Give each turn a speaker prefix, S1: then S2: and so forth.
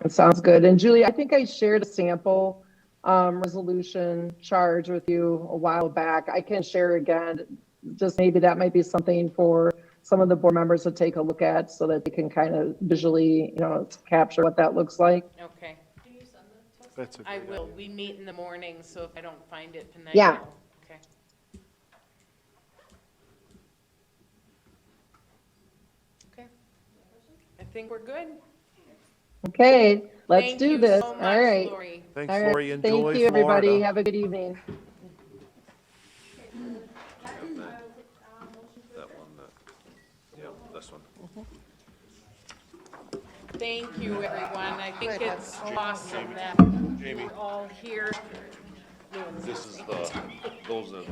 S1: That sounds good. And Julie, I think I shared a sample um, resolution charge with you a while back. I can share again, just maybe that might be something for some of the board members to take a look at so that they can kind of visually, you know, capture what that looks like.
S2: Okay,
S3: That's a
S2: I
S3: great
S2: will.
S3: idea.
S2: We meet in the morning, so if I don't find it tonight.
S1: Yeah.
S2: I'll- Okay. Okay. I think we're good.
S1: Okay, let's
S2: Thank
S1: do
S2: you
S1: this.
S2: so
S1: All
S2: much,
S1: right.
S2: Lori.
S3: Thanks,
S1: All right.
S3: Lori. Enjoy
S1: Thank
S3: Florida.
S1: you, everybody. Have a good evening.
S4: That one, that, yeah, this one.
S2: Thank you, everyone. I think it's awesome that we're all here.
S4: This is the, those are the